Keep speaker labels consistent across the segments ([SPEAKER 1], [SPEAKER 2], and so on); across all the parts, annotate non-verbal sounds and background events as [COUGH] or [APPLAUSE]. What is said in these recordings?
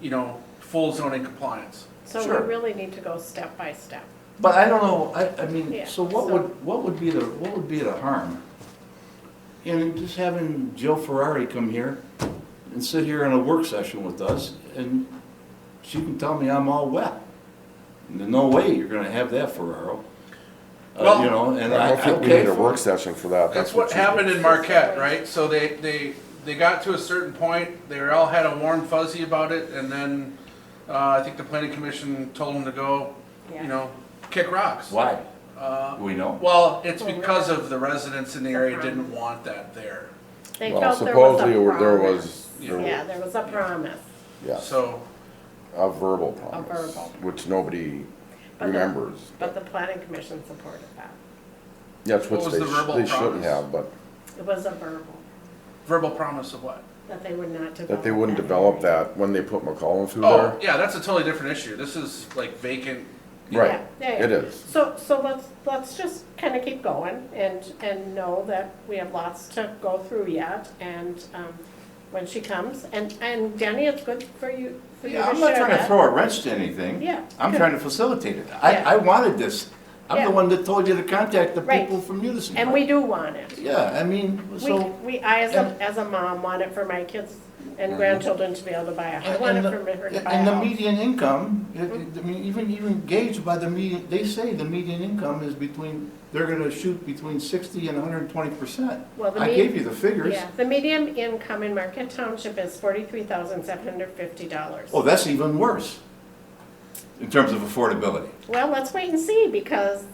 [SPEAKER 1] you know, full zoning compliance.
[SPEAKER 2] So
[SPEAKER 3] Sure.
[SPEAKER 2] we really need to go step by step.
[SPEAKER 3] But I don't know, I, I
[SPEAKER 2] Yeah,
[SPEAKER 3] mean, so what
[SPEAKER 2] so-
[SPEAKER 3] would, what would be the, what would be the harm? You know, just having Jill Ferrari come here and sit here in a work session with us, and she can tell me I'm all wet. There's no way you're gonna have that, Ferraro. Uh,
[SPEAKER 1] Well-
[SPEAKER 3] you know, and
[SPEAKER 4] I
[SPEAKER 3] I,
[SPEAKER 4] don't think we
[SPEAKER 3] okay.
[SPEAKER 4] need a work session for that.
[SPEAKER 1] That's what
[SPEAKER 4] you-
[SPEAKER 1] happened in Marquette, right? So they, they, they got to a certain point, they all had a warm fuzzy about it, and then, uh, I think the planning commission told them to go, you
[SPEAKER 2] Yeah.
[SPEAKER 1] know, kick rocks.
[SPEAKER 3] Why?
[SPEAKER 1] Uh,
[SPEAKER 3] We know.
[SPEAKER 1] Well, it's because of the residents in the area didn't want that there,
[SPEAKER 2] They
[SPEAKER 4] Well,
[SPEAKER 2] felt there was
[SPEAKER 4] supposedly
[SPEAKER 2] a
[SPEAKER 4] there
[SPEAKER 2] promise.
[SPEAKER 4] was,
[SPEAKER 1] Yeah.
[SPEAKER 4] there was-
[SPEAKER 2] Yeah, there was a promise.
[SPEAKER 4] yes,
[SPEAKER 1] so.
[SPEAKER 4] a verbal promise,
[SPEAKER 2] verbal.
[SPEAKER 4] which nobody
[SPEAKER 2] But the-
[SPEAKER 4] remembers.
[SPEAKER 2] But the planning commission supported that.
[SPEAKER 4] That's what
[SPEAKER 1] What was
[SPEAKER 4] they,
[SPEAKER 1] the
[SPEAKER 4] sh-
[SPEAKER 1] verbal
[SPEAKER 4] they shouldn't
[SPEAKER 1] promise?
[SPEAKER 4] have, but
[SPEAKER 2] It was a verbal,
[SPEAKER 1] Verbal promise of what?
[SPEAKER 2] that they would not develop.
[SPEAKER 4] that they wouldn't develop that when they put McCollum through
[SPEAKER 1] Oh,
[SPEAKER 4] there.
[SPEAKER 1] yeah, that's a totally different issue. This is like vacant.
[SPEAKER 4] Right,
[SPEAKER 2] Yeah, yeah, yeah.
[SPEAKER 4] it is.
[SPEAKER 2] So, so let's, let's just kind of keep going and, and know that we have lots to go through yet. And um, when she comes, and, and Danny, it's good for you, for you to
[SPEAKER 3] Yeah,
[SPEAKER 2] share
[SPEAKER 3] I'm not trying to
[SPEAKER 2] that.
[SPEAKER 3] throw a wrench to anything.
[SPEAKER 2] Yeah.
[SPEAKER 3] I'm trying to facilitate it. I,
[SPEAKER 2] Yeah.
[SPEAKER 3] I wanted this. I'm
[SPEAKER 2] Yeah.
[SPEAKER 3] the one that told you to contact the
[SPEAKER 2] Right.
[SPEAKER 3] people from Unison.
[SPEAKER 2] And we do want it.
[SPEAKER 3] Yeah, I mean,
[SPEAKER 2] We,
[SPEAKER 3] so.
[SPEAKER 2] we, I as a,
[SPEAKER 3] and- Mhm.
[SPEAKER 2] as a mom want it for my kids and grandchildren to be able to buy a, I want it
[SPEAKER 3] and the-
[SPEAKER 2] for Mm-hmm. her to buy a
[SPEAKER 3] And the
[SPEAKER 2] house.
[SPEAKER 3] median income, it- it- I mean, even, even gauged by the median, they say the median income is between, they're gonna shoot between sixty and hundred and twenty percent.
[SPEAKER 2] Well, the
[SPEAKER 3] I
[SPEAKER 2] med-
[SPEAKER 3] gave you the figures.
[SPEAKER 2] Yeah, the median income in Marquette Township is forty-three thousand seven hundred fifty dollars.
[SPEAKER 3] Oh, that's even worse in terms of affordability.
[SPEAKER 2] Well, let's wait and see because,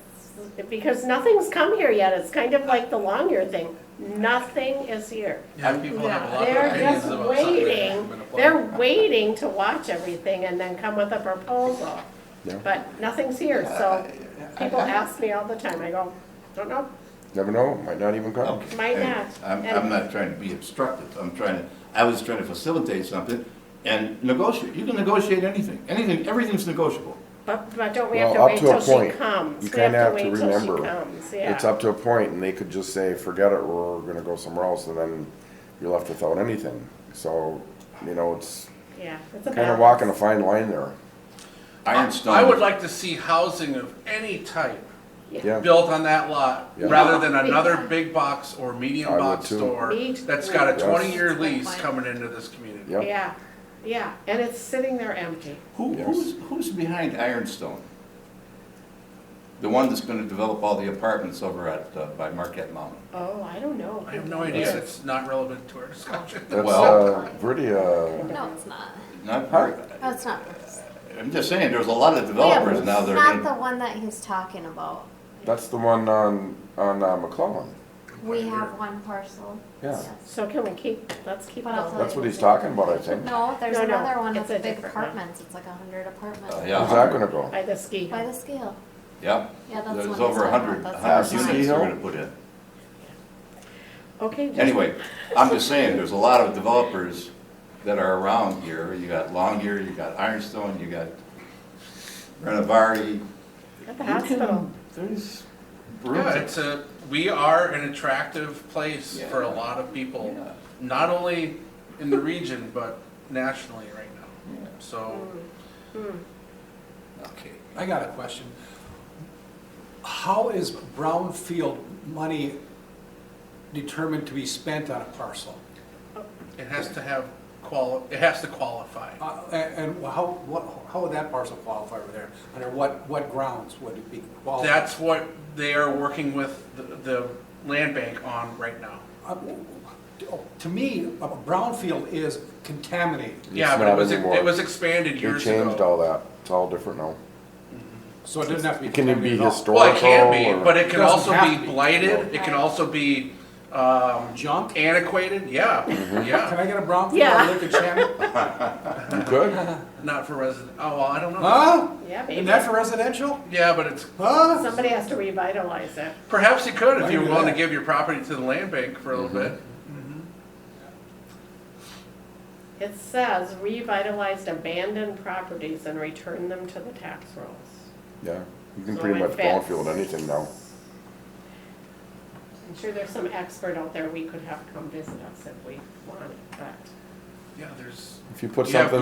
[SPEAKER 2] because nothing's come here yet. It's kind of like the Longyear thing. Nothing is here.
[SPEAKER 1] Yeah, people have a lot of
[SPEAKER 2] They're
[SPEAKER 1] opinions
[SPEAKER 2] just
[SPEAKER 1] about something that hasn't
[SPEAKER 2] waiting,
[SPEAKER 1] been applied.
[SPEAKER 2] they're waiting to watch everything and then come with a proposal.
[SPEAKER 4] Yeah.
[SPEAKER 2] But nothing's here, so people ask me all the time. I go, don't know,
[SPEAKER 4] Never know, might not even come.
[SPEAKER 3] Okay.
[SPEAKER 2] Might not.
[SPEAKER 3] I'm,
[SPEAKER 2] And-
[SPEAKER 3] I'm not trying to be obstructive, I'm trying to, I was trying to facilitate something and negotiate, you can negotiate anything, anything, everything's negotiable.
[SPEAKER 2] but, but don't we have to
[SPEAKER 4] Well, up
[SPEAKER 2] wait
[SPEAKER 4] to a
[SPEAKER 2] till she
[SPEAKER 4] point.
[SPEAKER 2] comes?
[SPEAKER 4] You
[SPEAKER 2] We have
[SPEAKER 4] kinda have to
[SPEAKER 2] wait till she
[SPEAKER 4] remember.
[SPEAKER 2] comes, yeah.
[SPEAKER 4] It's up to a point and they could just say, forget it, we're gonna go somewhere else, and then you're left without anything. So, you know, it's
[SPEAKER 2] Yeah, it's a
[SPEAKER 4] kinda
[SPEAKER 2] balance.
[SPEAKER 4] walking a fine line there,
[SPEAKER 3] Ironstone.
[SPEAKER 1] I would like to see housing of any type
[SPEAKER 4] yeah.
[SPEAKER 1] built on that lot,
[SPEAKER 4] Yeah.
[SPEAKER 1] rather than another big box or medium
[SPEAKER 4] I would
[SPEAKER 1] box
[SPEAKER 4] too.
[SPEAKER 1] store
[SPEAKER 2] Me
[SPEAKER 1] that's
[SPEAKER 2] too.
[SPEAKER 1] got a
[SPEAKER 4] Yes.
[SPEAKER 1] twenty-year lease coming into this community.
[SPEAKER 4] Yeah.
[SPEAKER 2] Yeah, yeah, and it's sitting there empty.
[SPEAKER 3] Who,
[SPEAKER 4] Yes.
[SPEAKER 3] who's, who's behind Ironstone? The one that's gonna develop all the apartments over at, uh, by Marquette Mountain.
[SPEAKER 2] Oh, I don't know.
[SPEAKER 1] I have no idea, it's not relevant to our discussion.
[SPEAKER 4] That's,
[SPEAKER 3] Well-
[SPEAKER 4] uh, pretty, uh,
[SPEAKER 5] No, it's not.
[SPEAKER 3] Not,
[SPEAKER 4] Huh?
[SPEAKER 5] No, it's not. Bruce.
[SPEAKER 3] I'm just saying, there's a lot of developers now that are
[SPEAKER 5] Not the
[SPEAKER 3] gonna.
[SPEAKER 5] one that he's talking about.
[SPEAKER 4] that's the one on, on uh, McClellan.
[SPEAKER 5] We have one parcel.
[SPEAKER 4] Yeah.
[SPEAKER 5] Yes.
[SPEAKER 2] So can we keep, let's keep
[SPEAKER 5] What else?
[SPEAKER 2] going.
[SPEAKER 4] That's what he's talking about, I think.
[SPEAKER 5] No, there's
[SPEAKER 2] No, no,
[SPEAKER 5] another one
[SPEAKER 2] it's
[SPEAKER 5] that's
[SPEAKER 2] a
[SPEAKER 5] big
[SPEAKER 2] different one.
[SPEAKER 5] apartments. It's like a hundred apartments.
[SPEAKER 3] Uh,
[SPEAKER 4] Where's that gonna
[SPEAKER 3] Yeah,
[SPEAKER 4] go?
[SPEAKER 2] By the ski.
[SPEAKER 5] By the scale.
[SPEAKER 3] yeah,
[SPEAKER 5] Yeah, that's
[SPEAKER 3] there's
[SPEAKER 5] one
[SPEAKER 3] over a
[SPEAKER 5] that's
[SPEAKER 3] hundred,
[SPEAKER 5] not-
[SPEAKER 3] a
[SPEAKER 5] that's
[SPEAKER 3] hundred
[SPEAKER 4] not-
[SPEAKER 3] units they're gonna put in.
[SPEAKER 2] Okay. just-
[SPEAKER 3] Anyway, I'm just saying, there's a lot of developers that are around here. You got Longyear, you got Ironstone, you got Renovari.
[SPEAKER 2] At the
[SPEAKER 4] [LAUGHS]
[SPEAKER 2] hospital.
[SPEAKER 3] There's
[SPEAKER 1] Yeah,
[SPEAKER 3] rooms.
[SPEAKER 1] it's a, we are an attractive place
[SPEAKER 3] Yeah.
[SPEAKER 1] for a lot of people,
[SPEAKER 3] Yeah.
[SPEAKER 1] not only in the region, but nationally right now.
[SPEAKER 3] Yeah.
[SPEAKER 1] So,
[SPEAKER 6] Okay, I got a question. How is brownfield money determined to be spent on a parcel?
[SPEAKER 1] it has to have quali, it has to qualify.
[SPEAKER 6] Uh, a- And how, what, how would that parcel qualify over there? Under what, what grounds would it be qualified?
[SPEAKER 1] That's what they are working with the, the land bank on right now.
[SPEAKER 6] Uh, To me, a brownfield is contaminated,
[SPEAKER 1] Yeah, but
[SPEAKER 4] not
[SPEAKER 1] it was,
[SPEAKER 4] anymore.
[SPEAKER 1] it was expanded
[SPEAKER 4] You
[SPEAKER 1] years
[SPEAKER 4] changed
[SPEAKER 1] ago.
[SPEAKER 4] all that. It's all different now.
[SPEAKER 6] so it doesn't have to be
[SPEAKER 4] It can be
[SPEAKER 6] contaminated at all.
[SPEAKER 4] historic.
[SPEAKER 1] Well, it can be,
[SPEAKER 4] Historical
[SPEAKER 1] but it can
[SPEAKER 6] or-
[SPEAKER 1] also
[SPEAKER 6] Doesn't have
[SPEAKER 1] be
[SPEAKER 6] to be.
[SPEAKER 1] blighted, it can also be, um,
[SPEAKER 6] Junk?
[SPEAKER 1] antiquated, yeah,
[SPEAKER 4] Mm-hmm.
[SPEAKER 6] Can
[SPEAKER 1] yeah.
[SPEAKER 6] I get a brownfield
[SPEAKER 2] Yeah.
[SPEAKER 6] or lick a
[SPEAKER 2] [LAUGHS]
[SPEAKER 6] channel?
[SPEAKER 4] You could?
[SPEAKER 1] Not for resident, oh, well, I don't know.
[SPEAKER 6] Huh?
[SPEAKER 2] Yeah,
[SPEAKER 6] Isn't
[SPEAKER 2] maybe.
[SPEAKER 6] that for residential?
[SPEAKER 1] Yeah, but it's,
[SPEAKER 6] Huh?
[SPEAKER 2] Somebody has to revitalize it.
[SPEAKER 1] perhaps you could if
[SPEAKER 6] Why
[SPEAKER 1] you're
[SPEAKER 6] do
[SPEAKER 1] willing to
[SPEAKER 6] that?
[SPEAKER 1] give your property to the land bank for a little
[SPEAKER 4] Mm-hmm.
[SPEAKER 1] bit.
[SPEAKER 2] It says revitalized abandoned properties and return them to the tax rolls.
[SPEAKER 4] Yeah. You can
[SPEAKER 2] So
[SPEAKER 4] pretty
[SPEAKER 2] it
[SPEAKER 4] much
[SPEAKER 2] fits.
[SPEAKER 4] brownfield anything now.
[SPEAKER 2] I'm sure there's some expert out there we could have come visit us if we wanted, but.
[SPEAKER 1] Yeah, there's.
[SPEAKER 4] If you put
[SPEAKER 1] You have
[SPEAKER 4] something